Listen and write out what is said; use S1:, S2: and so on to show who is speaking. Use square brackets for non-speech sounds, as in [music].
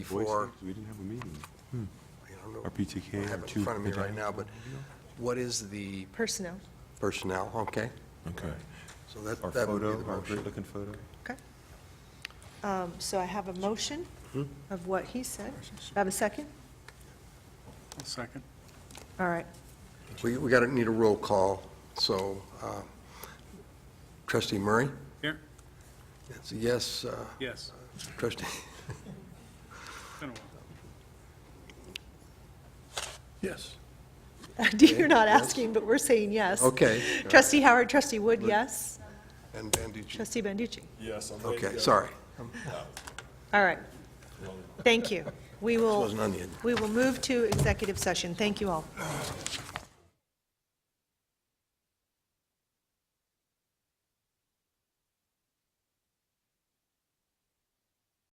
S1: before,
S2: We didn't have a meeting.
S1: I don't know,
S2: Our
S1: I
S2: PTK,
S1: don't
S2: our
S1: have it
S2: two.
S1: in front of me right now, but what is the
S3: Personnel.
S1: personnel, okay?
S2: Okay.
S1: So that,
S2: Our
S1: that would be
S2: photo,
S1: the
S2: our great
S1: motion.
S2: looking photo.
S3: Okay. Um, So I have a motion
S1: Hmm?
S3: of what he said. Do I have a second?
S4: Second.
S3: All [laughs] right.
S1: We, we gotta need a roll call, so, uh, trustee Murray?
S4: Here?
S1: That's a yes, uh,
S4: Yes.
S1: trustee,
S4: It's been a while.
S5: Yes.
S3: You're not
S1: yes.
S3: asking, but we're saying yes.
S1: okay.
S3: Trustee Howard, trustee Wood, yes.
S1: And, and did you,
S3: Trustee Banducci.
S5: Yes. I'm ready to
S1: okay,
S5: go.
S1: sorry,
S3: All right. Thank you. We will,
S1: wasn't on the agenda.
S3: we will move to executive session. Thank you all.